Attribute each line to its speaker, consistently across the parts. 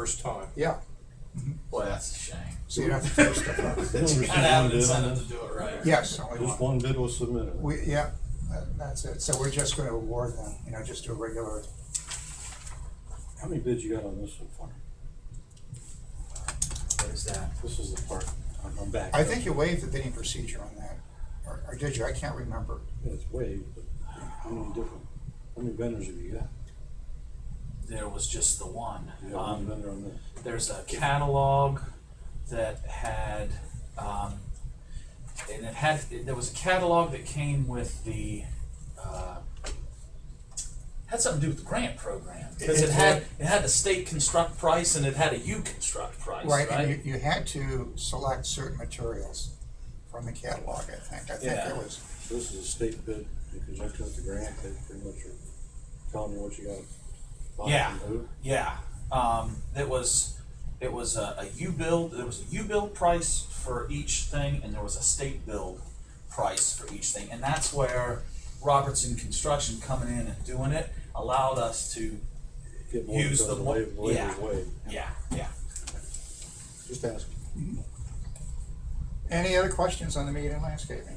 Speaker 1: first time.
Speaker 2: Yeah,
Speaker 3: Boy, that's a shame.
Speaker 2: so you don't have to tear stuff up.
Speaker 1: There's
Speaker 3: You
Speaker 1: just
Speaker 3: kind of have
Speaker 1: one
Speaker 3: an
Speaker 1: bid on
Speaker 3: incentive
Speaker 1: it.
Speaker 3: to do it right.
Speaker 2: Yes, only
Speaker 1: Just
Speaker 2: one.
Speaker 1: one bid was submitted.
Speaker 2: We, yeah, that- that's it. So we're just gonna award them, you know, just do a regular,
Speaker 1: How many bids you got on this so far?
Speaker 3: There's that.
Speaker 1: This is the part, I'm- I'm back.
Speaker 2: I think you waived the bidding procedure on that, or, or did you? I can't remember.
Speaker 1: It's waived, but how many different, how many vendors have you got?
Speaker 3: There was just the one.
Speaker 1: You got one
Speaker 3: Um,
Speaker 1: vendor on this?
Speaker 3: there's a catalog that had, um, and it had, there was a catalog that came with the, uh, had something to do with the grant program. Because it had, it had the state construct price and it had a you construct price,
Speaker 2: Right,
Speaker 3: right?
Speaker 2: and you, you had to select certain materials from the catalog, I think. I think
Speaker 3: Yeah.
Speaker 2: it was,
Speaker 1: This is a state bid, because I took the grant, they pretty much are telling you what you gotta buy
Speaker 3: Yeah.
Speaker 1: and who.
Speaker 3: Yeah, um, it was, it was a, a U build, there was a U build price for each thing, and there was a state build price for each thing, and that's where Robertson Construction coming in and doing it allowed us to,
Speaker 1: Get more
Speaker 3: Use
Speaker 1: because
Speaker 3: the
Speaker 1: of
Speaker 3: one-
Speaker 1: waive- waive is
Speaker 3: yeah.
Speaker 1: waived.
Speaker 3: yeah, yeah.
Speaker 1: Just ask.
Speaker 2: any other questions on the media and landscaping?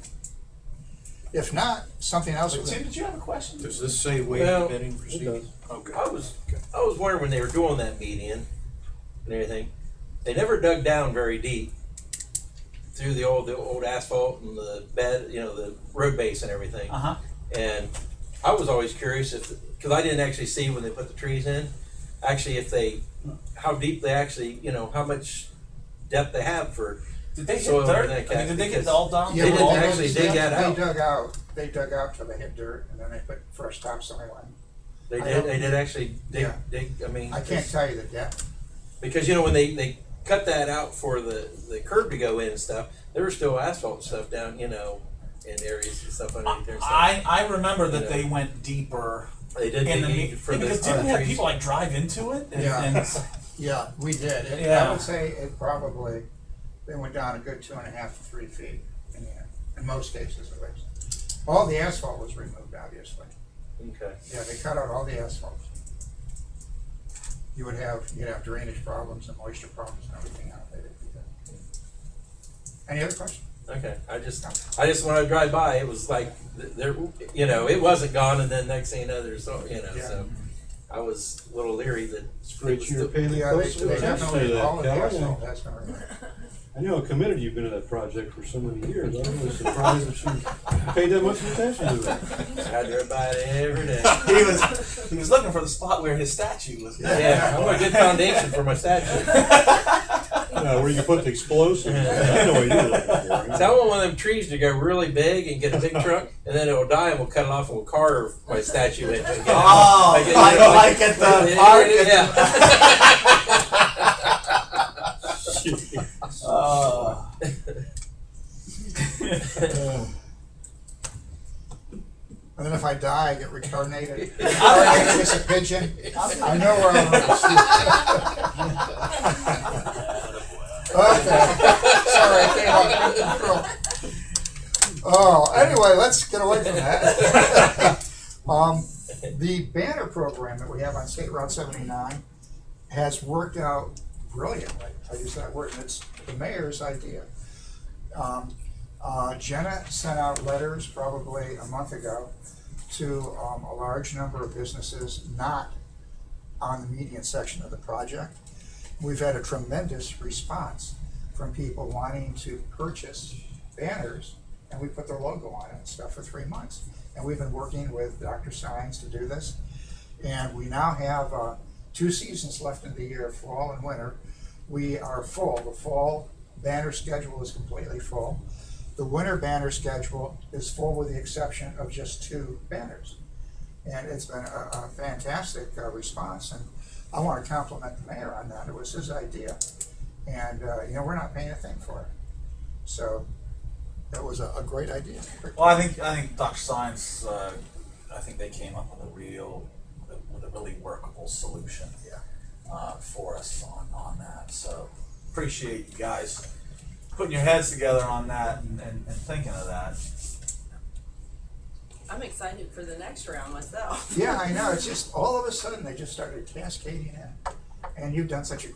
Speaker 2: If not, something else.
Speaker 3: But
Speaker 2: with-
Speaker 3: Tim, did you have a question?
Speaker 4: Does this say waive
Speaker 5: Well,
Speaker 4: bidding procedure?
Speaker 1: does.
Speaker 4: Okay.
Speaker 5: I was I was wondering when they were doing that median and everything, they never dug down very deep through the old the old asphalt and the bed, you know, the road base and everything.
Speaker 3: Uh-huh,
Speaker 5: And I was always curious if because I didn't actually see when they put the trees in, actually if they how deep they actually you know how much depth they have for
Speaker 3: did they get
Speaker 5: Soil
Speaker 3: dirt,
Speaker 5: and
Speaker 3: I mean, did they get
Speaker 5: uh, because-
Speaker 3: it all done?
Speaker 2: Yeah,
Speaker 5: They
Speaker 2: but
Speaker 5: didn't
Speaker 2: they-
Speaker 5: actually dig
Speaker 2: they-
Speaker 5: that out.
Speaker 2: They dug out, they dug out till they hit dirt and then they put fresh topsoil in.
Speaker 5: they
Speaker 2: I
Speaker 5: did
Speaker 2: don't-
Speaker 5: they did actually dig,
Speaker 2: Yeah.
Speaker 5: dig I mean
Speaker 2: I can't tell you the depth.
Speaker 5: Because you know when they, they cut that out for the, the curb to go in and stuff, there was still asphalt stuff down, you know, in areas and stuff underneath there. and stuff.
Speaker 3: I, I remember that they went deeper
Speaker 5: they did
Speaker 3: in the,
Speaker 5: dig
Speaker 3: me-
Speaker 5: for the
Speaker 3: because
Speaker 5: other
Speaker 3: didn't we have
Speaker 5: trees.
Speaker 3: people like drive into it? And-
Speaker 2: Yeah.
Speaker 3: and-
Speaker 2: Yeah, we did. It- I
Speaker 3: Yeah.
Speaker 2: would say it probably, they went down a good two and a half to three feet in the end, in most cases at least. All the asphalt was removed, obviously.
Speaker 5: Okay.
Speaker 2: Yeah, they cut out all the asphalt. You would have, you'd have drainage problems and moisture problems and everything out there. if you did. Any other questions?
Speaker 5: Okay. I just I just when I drive by, it was like th- there, you know, it wasn't gone, and then next thing you know, there's so you know,
Speaker 2: Yeah.
Speaker 5: so I was a little leery that
Speaker 1: It's
Speaker 5: great
Speaker 1: great
Speaker 5: you're
Speaker 1: you're paying
Speaker 2: Yeah, they, they definitely, all of the asphalt
Speaker 1: I
Speaker 2: has been removed.
Speaker 1: know how committed you've been to that project for so many years, I'm really surprised that you paid that much attention to it.
Speaker 5: I drive by it every day.
Speaker 3: He was, he was looking for the spot where his statue was.
Speaker 5: Yeah, I want a good foundation for my statue.
Speaker 1: Yeah, where you put the explosives, I know what you're looking
Speaker 5: So I
Speaker 1: for.
Speaker 5: want one of them trees to go really big and get a big trunk, and then it'll die, and we'll cut it off and we'll carve my statue into it.
Speaker 2: Ah,
Speaker 3: Oh, like- like at the
Speaker 2: uh,
Speaker 3: park at Oh.
Speaker 2: And then if I die, I get reincarnated.
Speaker 5: Yeah.
Speaker 2: I guess a pigeon. I know where I'm going. Okay, sorry, I came out of control. Oh, anyway, let's get away from that. Um, the banner program that we have on State Route seventy-nine has worked out brilliantly. I use that word, and it's the mayor's idea. Um, uh, Jenna sent out letters probably a month ago to um, a large number of businesses not on the median section of the project. We've had a tremendous response from people wanting to purchase banners, and we put their logo on it and stuff for three months. And we've been working with Dr. Sines to do this. And we now have uh, two seasons left in the year, fall and winter. We are full. The fall banner schedule is completely full. The winter banner schedule is full with the exception of just two banners. And it's been a, a fantastic uh, response, and I want to compliment the mayor on that. It was his idea. And, uh, you know, we're not paying a thing for it. So that was a, a great idea.
Speaker 3: Well, I think I think Dr. Science. Uh, I think they came up with a real, with a really workable solution.
Speaker 2: Yeah.
Speaker 3: Uh, for us on on that, so appreciate you guys putting your heads together on that and, and, and thinking of that.
Speaker 6: I'm excited for the next round myself.
Speaker 2: Yeah, I know. It's just all of a sudden they just started cascading in. And you've done such a